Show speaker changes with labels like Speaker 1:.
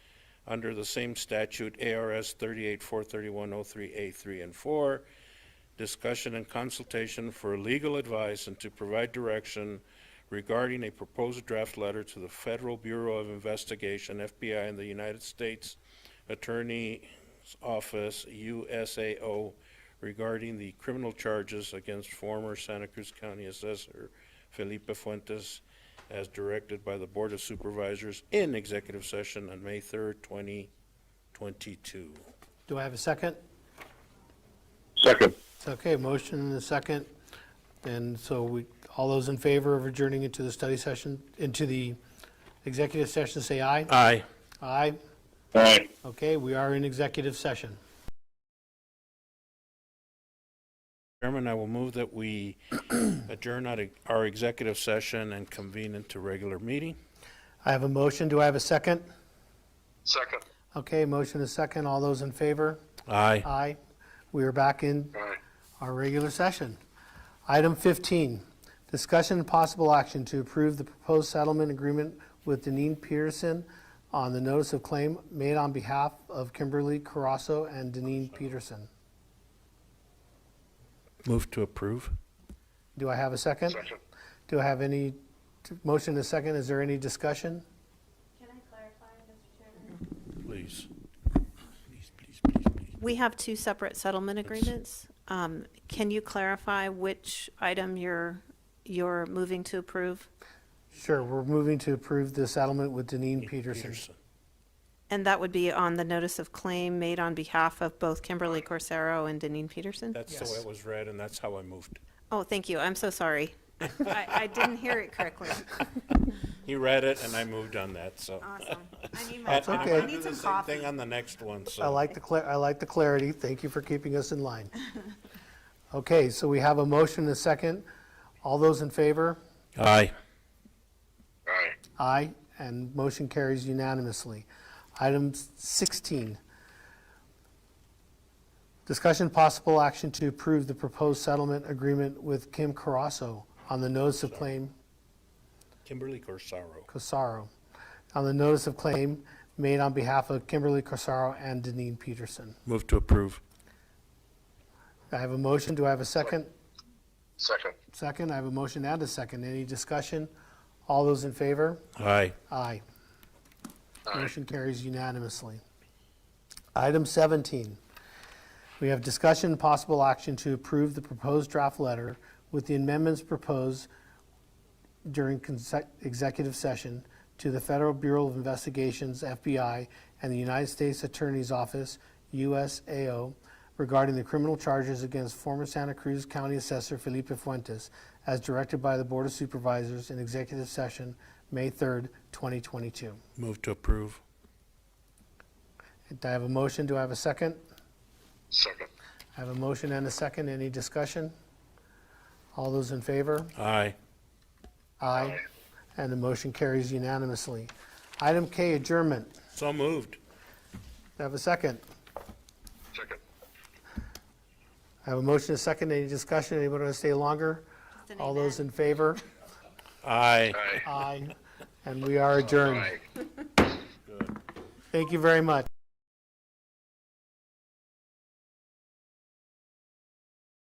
Speaker 1: under the same statute, ARS 3843103A3 and 4, discussion and consultation for legal advice and to provide direction regarding a proposed draft letter to the Federal Bureau of Investigation, FBI, and the United States Attorney's Office, USAO, regarding the criminal charges against former Santa Cruz County Assessor Felipe Fuentes as directed by the Board of Supervisors in executive session on May 3rd, 2022.
Speaker 2: Do I have a second?
Speaker 3: Second.
Speaker 2: Okay, motion and a second. And so we, all those in favor of adjourning into the study session, into the executive session, say aye.
Speaker 1: Aye.
Speaker 2: Aye.
Speaker 3: All right.
Speaker 2: Okay, we are in executive session.
Speaker 1: Chairman, I will move that we adjourn out of our executive session and convene into regular meeting.
Speaker 2: I have a motion. Do I have a second?
Speaker 3: Second.
Speaker 2: Okay, motion and a second. All those in favor?
Speaker 1: Aye.
Speaker 2: Aye. We are back in
Speaker 3: All right.
Speaker 2: our regular session. Item 15, discussion and possible action to approve the proposed settlement agreement with Deneen Peterson on the notice of claim made on behalf of Kimberly Carasso and Deneen Peterson.
Speaker 1: Move to approve.
Speaker 2: Do I have a second?
Speaker 3: Second.
Speaker 2: Do I have any, motion to second, is there any discussion?
Speaker 4: Can I clarify, Mr. Chairman?
Speaker 1: Please. Please, please, please, please.
Speaker 5: We have two separate settlement agreements. Um, Can you clarify which item you're, you're moving to approve?
Speaker 2: Sure, we're moving to approve the settlement with Deneen Peterson.
Speaker 1: Peterson.
Speaker 5: And that would be on the notice of claim made on behalf of both Kimberly Corsaro and Deneen Peterson?
Speaker 1: That's the way it was read, and that's how I moved.
Speaker 5: Oh, thank you, I'm so sorry. I, I didn't hear it correctly.
Speaker 1: He read it, and I moved on that, so.
Speaker 5: Awesome. I need my,
Speaker 1: And- and I'm
Speaker 2: okay.
Speaker 5: I
Speaker 1: gonna do
Speaker 5: need
Speaker 1: the
Speaker 5: some
Speaker 1: same
Speaker 5: coffee.
Speaker 1: Thing on the next one, so.
Speaker 2: I like the clar, I like the clarity, thank you for keeping us in line. Okay, so we have a motion and a second, all those in favor?
Speaker 1: Aye.
Speaker 3: All right.
Speaker 2: Aye, and motion carries unanimously. Item 16, discussion possible action to approve the proposed settlement agreement with Kim Carasso on the notice of claim,
Speaker 1: Kimberly Corsaro.
Speaker 2: Cosaro, on the notice of claim made on behalf of Kimberly Cosaro and Deneen Peterson.
Speaker 1: Move to approve.
Speaker 2: I have a motion, do I have a second?
Speaker 3: Second.
Speaker 2: Second, I have a motion and a second. Any discussion? All those in favor?
Speaker 1: Aye.
Speaker 2: Aye.
Speaker 3: Aye.
Speaker 2: Motion carries unanimously. Item 17, we have discussion and possible action to approve the proposed draft letter with the amendments proposed during conse- executive session to the Federal Bureau of Investigations, FBI, and the United States Attorney's Office, USAO, regarding the criminal charges against former Santa Cruz County Assessor Felipe Fuentes, as directed by the Board of Supervisors in executive session, May 3rd, 2022.
Speaker 1: Move to approve.
Speaker 2: Do I have a motion? Do I have a second?
Speaker 3: Second.
Speaker 2: I have a motion and a second. Any discussion? All those in favor?
Speaker 1: Aye.
Speaker 2: Aye. And the motion carries unanimously. Item K, adjournment. Do
Speaker 1: So moved.
Speaker 2: I have a second?
Speaker 3: Second.
Speaker 2: I have a motion, a second, any discussion, anybody want to stay longer?
Speaker 5: an
Speaker 2: All those in favor?
Speaker 1: Aye.
Speaker 3: All right.
Speaker 2: Aye. And we are adjourned.
Speaker 3: Aye.
Speaker 2: Thank you very much.